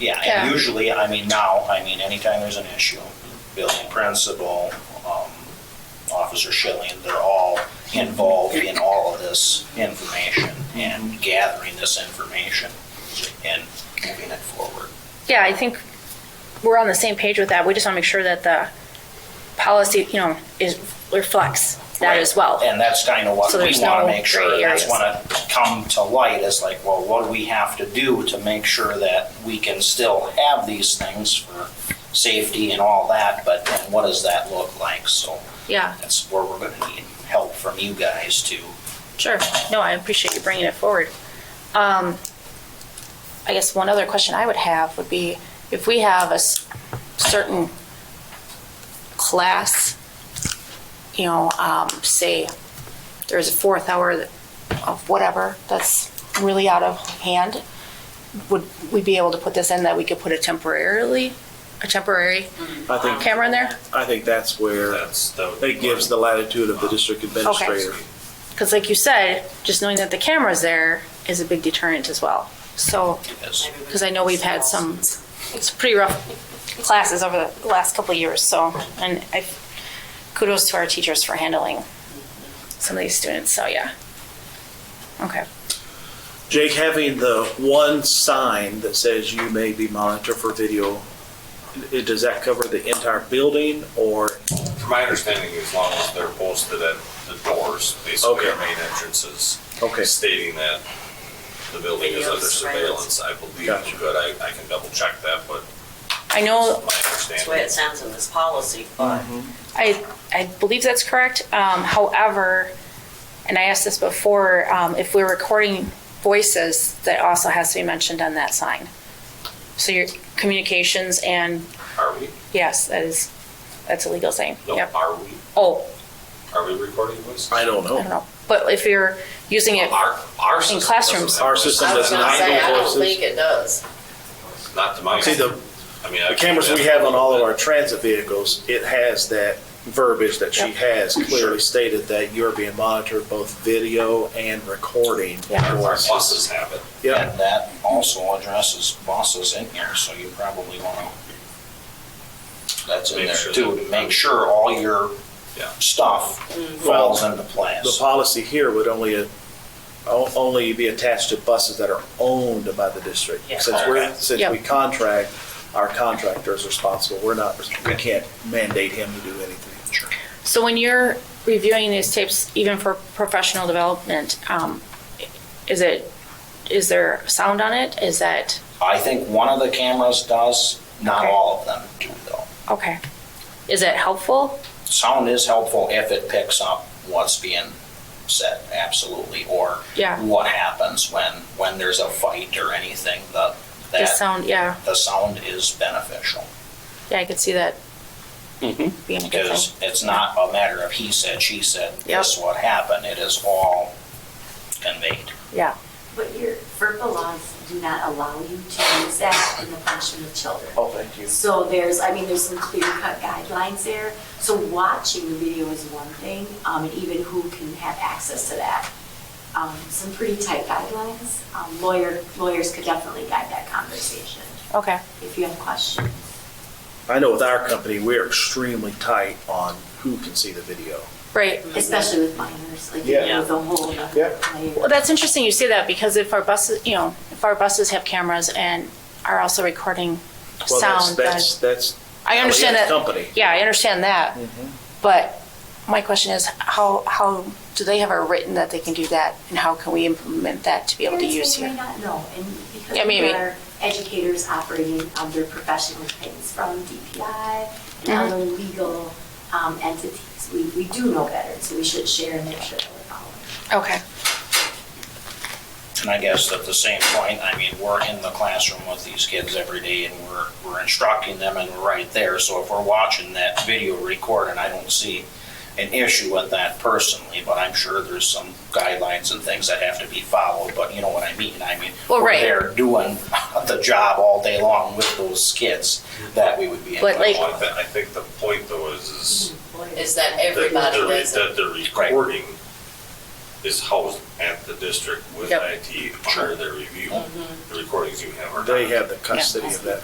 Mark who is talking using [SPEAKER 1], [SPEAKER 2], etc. [SPEAKER 1] Yeah,
[SPEAKER 2] Yeah.
[SPEAKER 1] and usually, I mean, now, I mean, anytime there's an issue, building principal, um, Officer Schilling, they're all involved in all of this information and gathering this information and moving it forward.
[SPEAKER 2] Yeah, I think we're on the same page with that. We just want to make sure that the policy, you know, is, reflects that as well.
[SPEAKER 1] And that's kind of what
[SPEAKER 2] So
[SPEAKER 1] we
[SPEAKER 2] there's
[SPEAKER 1] want to
[SPEAKER 2] no
[SPEAKER 1] make sure,
[SPEAKER 2] gray
[SPEAKER 1] that's
[SPEAKER 2] areas.
[SPEAKER 1] want to come to light, is like, well, what do we have to do to make sure that we can still have these things for safety and all that, but then what does that look like, so.
[SPEAKER 2] Yeah,
[SPEAKER 1] That's where we're gonna need help from you guys to,
[SPEAKER 2] sure. No, I appreciate you bringing it forward. Um, I guess one other question I would have would be if we have a s- certain class, you know, um, say there's a fourth hour of whatever that's really out of hand, would we be able to put this in that we could put a temporarily, a temporary
[SPEAKER 3] I think,
[SPEAKER 2] camera in there?
[SPEAKER 3] I think that's where
[SPEAKER 4] That's the.
[SPEAKER 3] it gives the latitude of the district administrator.
[SPEAKER 2] Because like you said, just knowing that the camera's there is a big deterrent as well. So,
[SPEAKER 1] because
[SPEAKER 2] because I know we've had some, it's pretty rough classes over the last couple of years, so, and I, kudos to our teachers for handling some of these students, so yeah. Okay,
[SPEAKER 3] Jake, having the one sign that says you may be monitored for video, i- does that cover the entire building or?
[SPEAKER 4] My understanding, as long as they're posted at the doors, basically our
[SPEAKER 3] Okay.
[SPEAKER 4] main entrances,
[SPEAKER 3] Okay,
[SPEAKER 4] stating that the building is
[SPEAKER 5] Video
[SPEAKER 4] under surveillance, I believe
[SPEAKER 3] Gotcha.
[SPEAKER 4] we're good. I, I can double check that, but
[SPEAKER 2] I know,
[SPEAKER 4] my
[SPEAKER 5] That's the way
[SPEAKER 4] understanding.
[SPEAKER 5] it sounds in this policy, but
[SPEAKER 2] I, I believe that's correct, um, however, and I asked this before, um, if we're recording voices, that also has to be mentioned on that sign. So your communications and
[SPEAKER 4] Are we?
[SPEAKER 2] Yes, that is, that's a legal thing.
[SPEAKER 4] No,
[SPEAKER 2] Yep.
[SPEAKER 4] are we?
[SPEAKER 2] Oh,
[SPEAKER 4] Are we recording voices?
[SPEAKER 3] I don't
[SPEAKER 2] I
[SPEAKER 3] know.
[SPEAKER 2] don't know. But if you're using it,
[SPEAKER 4] Our, our system. doesn't
[SPEAKER 2] classrooms.
[SPEAKER 4] have
[SPEAKER 3] Our
[SPEAKER 4] voices.
[SPEAKER 3] system
[SPEAKER 5] I was
[SPEAKER 3] does
[SPEAKER 5] gonna
[SPEAKER 3] not
[SPEAKER 5] say, I
[SPEAKER 3] know
[SPEAKER 5] don't
[SPEAKER 3] voices.
[SPEAKER 5] think it does.
[SPEAKER 4] Not to my.
[SPEAKER 3] See, the,
[SPEAKER 4] I mean,
[SPEAKER 3] the
[SPEAKER 4] I've-
[SPEAKER 3] cameras we have on all of our transit vehicles, it has that verbiage that she
[SPEAKER 2] Yep.
[SPEAKER 3] has clearly stated that you're being monitored both video and recording.
[SPEAKER 2] Yeah.
[SPEAKER 4] Our buses have it.
[SPEAKER 3] Yep,
[SPEAKER 1] and that also addresses bosses in here, so you probably wanna. That's in
[SPEAKER 4] Make
[SPEAKER 1] there
[SPEAKER 4] sure
[SPEAKER 1] too,
[SPEAKER 4] that-
[SPEAKER 1] to make sure all your
[SPEAKER 4] Yeah.
[SPEAKER 1] stuff
[SPEAKER 2] Mm-hmm.
[SPEAKER 1] falls into
[SPEAKER 3] the
[SPEAKER 1] place.
[SPEAKER 3] policy here would only, uh, o- only be attached to buses that are owned by the district.
[SPEAKER 5] Yeah.
[SPEAKER 3] Since we're,
[SPEAKER 1] Okay.
[SPEAKER 3] since
[SPEAKER 2] Yep.
[SPEAKER 3] we contract, our contractor is responsible, we're not, we can't mandate him to do anything.
[SPEAKER 1] Sure.
[SPEAKER 2] so when you're reviewing these tapes, even for professional development, um, is it, is there sound on it? Is that,
[SPEAKER 1] I think one of the cameras does, not
[SPEAKER 2] Okay.
[SPEAKER 1] all of them do though.
[SPEAKER 2] okay. Is it helpful?
[SPEAKER 1] Sound is helpful if it picks up what's being said, absolutely, or
[SPEAKER 2] Yeah.
[SPEAKER 1] what happens when, when there's a fight or anything, the,
[SPEAKER 2] The
[SPEAKER 1] that,
[SPEAKER 2] sound, yeah,
[SPEAKER 1] the sound is beneficial.
[SPEAKER 2] yeah, I could see that
[SPEAKER 3] Mm-hmm.
[SPEAKER 2] being a good thing.
[SPEAKER 1] Because it's not a matter of he said, she said,
[SPEAKER 2] Yep.
[SPEAKER 1] this what happened, it is all conveyed.
[SPEAKER 2] Yeah,
[SPEAKER 6] But your FERPA laws do not allow you to use that in the punishment of children.
[SPEAKER 3] Oh, thank you.
[SPEAKER 6] So there's, I mean, there's some clear cut guidelines there. So watching the video is one thing, um, and even who can have access to that. Um, some pretty tight guidelines. Um, lawyer, lawyers could definitely guide that conversation
[SPEAKER 2] okay,
[SPEAKER 6] if you have questions.
[SPEAKER 3] I know with our company, we're extremely tight on who can see the video.
[SPEAKER 2] right.
[SPEAKER 6] Especially with minors, like, you
[SPEAKER 3] Yeah.
[SPEAKER 6] know, the whole uh,
[SPEAKER 3] Yeah.
[SPEAKER 6] other layer.
[SPEAKER 2] Well, that's interesting you say that because if our buses, you know, if our buses have cameras and are also recording
[SPEAKER 3] Well, that's-
[SPEAKER 2] sound, then
[SPEAKER 3] That's, that's.
[SPEAKER 2] I understand
[SPEAKER 3] Elliott
[SPEAKER 2] that.
[SPEAKER 3] Company.
[SPEAKER 2] Yeah, I understand that. But my question is, how, how do they have it written that they can do that? And how can we implement that to be able to use
[SPEAKER 6] Parents may
[SPEAKER 2] here?
[SPEAKER 6] not know, and because
[SPEAKER 2] Yeah, maybe.
[SPEAKER 6] there are educators operating under professional things from DPI and other legal um, entities, we, we do know better, so we should share and make sure that we're following.
[SPEAKER 2] Okay,
[SPEAKER 1] And I guess at the same point, I mean, we're in the classroom with these kids every day and we're, we're instructing them and we're right there. So if we're watching that video recording, I don't see an issue with that personally, but I'm sure there's some guidelines and things that have to be followed, but you know what I mean? I mean,
[SPEAKER 2] Well,
[SPEAKER 1] we're
[SPEAKER 2] right.
[SPEAKER 1] there doing the job all day long with those kids that we would be.
[SPEAKER 2] But, like-
[SPEAKER 4] Well, I thi- I think the point though is, is
[SPEAKER 5] Is that
[SPEAKER 4] that
[SPEAKER 5] everybody
[SPEAKER 4] they're,
[SPEAKER 5] does it?
[SPEAKER 4] that they're recording is housed at the district with
[SPEAKER 2] Yep.
[SPEAKER 5] Mm-hmm.
[SPEAKER 4] IT under their review. The recordings you have are.
[SPEAKER 3] They
[SPEAKER 4] not.
[SPEAKER 3] have the custody of that